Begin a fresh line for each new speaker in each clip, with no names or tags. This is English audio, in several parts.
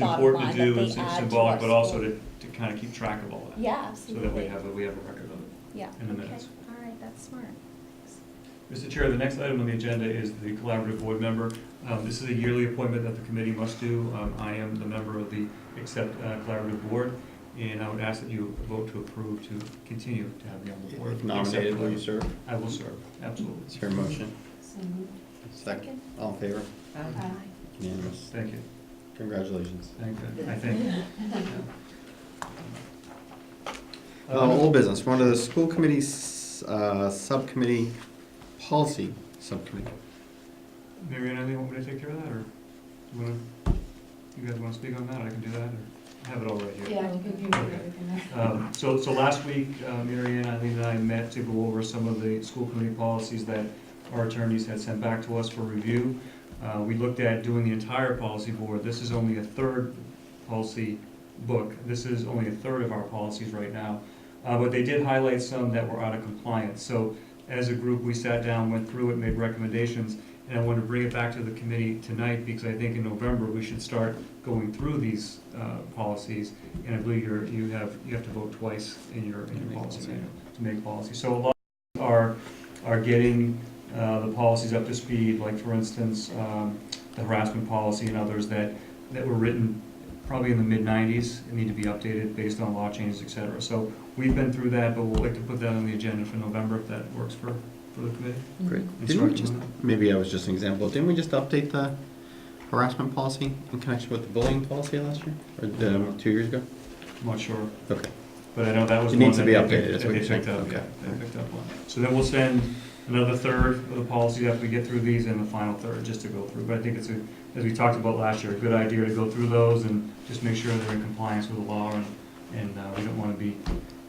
bottom
important
line
to
that
do,
they
it's it's
add to
symbolic,
our
but also
school.
to, to kind of keep track of all that.
Yeah,
So that we
absolutely,
have, a- we have a record of it
yeah.
in the
Okay,
minutes.
all right, that's smart.
Mr. Chair, the next item on the agenda is the collaborative board member. Um, This is a yearly appointment that the committee must do. Um, I am the member of the Accept uh, Collaborative Board, and I would ask that you vote to approve to continue to have me on the board.
If nominated, will you
Accept
serve?
Collaborative. I will serve, absolutely.
It's your motion.
So moved.
Second. All in favor?
Aye.
Unanimous.
Thank you.
Congratulations.
Thank you. I think.
Uh, old business, one of the school committee's, uh, subcommittee, policy subcommittee.
Mm-hmm.
Mary Ann, anything want me to take care of that, or you wanna, you guys wanna speak on that, I can do that, or have it all right here?
Yeah, you can do everything there.
Um, So, so last week, uh, Mary Ann, Eileen, and I met to go over some of the school committee policies that our attorneys had sent back to us for review. Uh, We looked at doing the entire policy board. This is only a third policy book. This is only a third of our policies right now. Uh, But they did highlight some that were out of compliance. So as a group, we sat down, went through it, made recommendations. And I want to bring it back to the committee tonight because I think in November, we should start going through these uh, policies. And I believe you're, you have, you have to vote twice in your, in your policy manual to make policy. So a lot are, are getting uh, the policies up to speed, like for instance, um, the harassment policy and others that, that were written probably in the mid-nineties and need to be updated based on law changes, et cetera. So we've been through that, but we'll like to put that on the agenda for November if that works for, for the committee.
Great.
And
Didn't
start
we just,
doing that.
maybe I was just an example, didn't we just update the harassment policy in connection with the bullying policy last year? Or, um, two years ago?
I'm not sure.
Okay.
But I know that was
It
one
needs
that
to be
they
updated,
picked-
that's
that
what
they
you're saying.
picked up, yeah,
Okay.
they picked up one. So then we'll send another third of the policies after we get through these, and the final third, just to go through. But I think it's, a as we talked about last year, a good idea to go through those and just make sure they're in compliance with the law, and, and uh, we don't want to be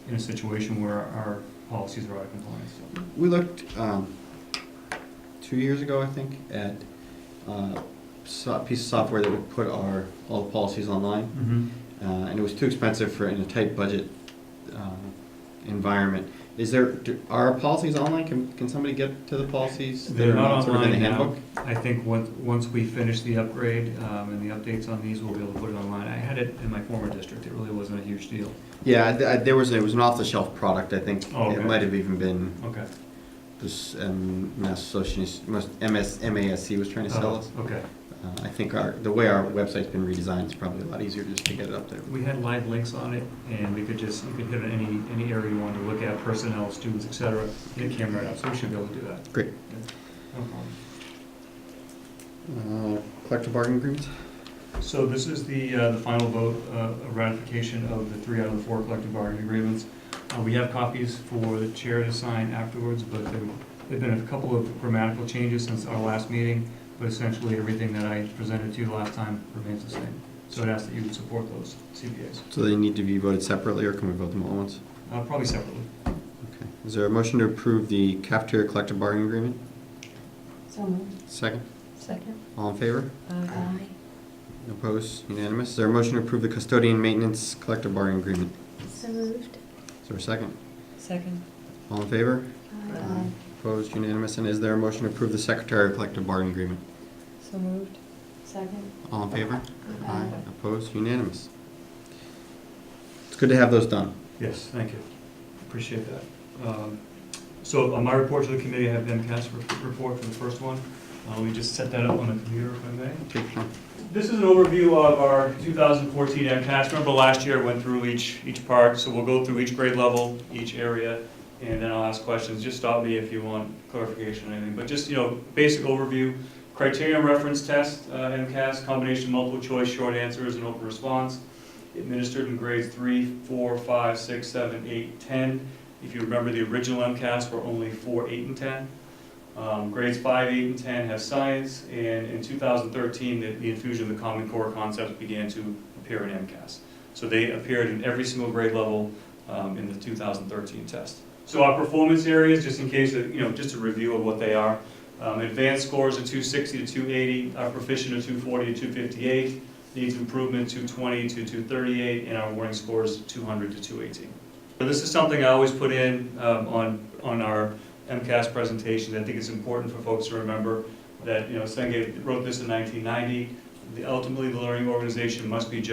in a situation where our policies are out of compliance, so.
We looked, um, two years ago, I think, at, uh, so, a piece of software that would put our, all the policies online. uh, and it was too expensive for in a tight budget uh, environment. Is there do, are our policies online? Can, can somebody get to the policies? that
They're
are
not
sort of in
online
the
now.
handbook?
I think once, once we finish the upgrade um, and the updates on these, we'll be able to put it online. I had it in my former district, it really wasn't a huge deal.
Yeah, I, I, there was it was an off the shelf product. I think
Oh, okay.
it might have even been
Okay.
this um, Mass Association, MS, MASC was trying to sell us.
Oh, Okay.
Uh, I think our the way our website's been redesigned is probably a lot easier just to get it up there.
We had live links on it, and we could just, you could hit any, any area you wanted to look at, personnel, students, et cetera, and it came right up, so we should be able to do that.
Great.
No problem.
Uh, collective bargaining agreements.
So this is the, uh, the final vote uh, of ratification of the three out of the four collective bargaining agreements. Uh, We have copies for the chair to sign afterwards, but there have been a couple of grammatical changes since our last meeting, but essentially everything that I presented to you last time remains the same. So I'd ask that you would support those CBAs,
So they need to be voted separately, or can we vote them all at once?
Uh, probably separately.
Okay. Is there a motion to approve the cafeteria collective bargaining agreement?
So moved.
Second.
Second.
All in favor?
Aye.
Opposed? Unanimous? Is there a motion to approve the custodian maintenance collective bargaining agreement?
So moved.
Is there a second?
Second.
All in favor?
Aye.
Opposed? Unanimous? And is there a motion to approve the secretary collective bargaining agreement?
So moved. Second.
All in favor?
Aye.
Opposed? Unanimous? It's good to have those done.
Yes, thank you. Appreciate that. Um, So on my report to the committee, I have MCAS re- report for the first one. Uh, Let me just set that up on the computer if I may.
Take your time.
This is an overview of our 2014 MCAS. Remember last year, I went through each, each part, so we'll go through each grade level, each area, and then I'll ask questions. Just stop me if you want clarification or anything, but just, you know, basic overview. Criterion reference test, uh, MCAS, combination of multiple choice, short answers, and open response, administered in grades 3, 4, 5, 6, 7, 8, 10. If you remember, the original MCAS were only 4, 8, and 10. Um, Grades 5, 8, and 10 have science, and in 2013, the- the infusion of the Common Core concepts began to appear in MCAS. So they appeared in every single grade level um, in the 2013 test. So our performance areas, just in case, of- you know, just a review of what they are. Um, Advanced scores are 260 to 280, our proficient are 240 to 258, needs improvement 220 to 238, and our warning scores 200 to 218. So This is something I always put in um, on, on our MCAS presentations, I think it's important for folks to remember that, you know, Senge wrote this in 1990, the- ultimately, the learning organization must be judged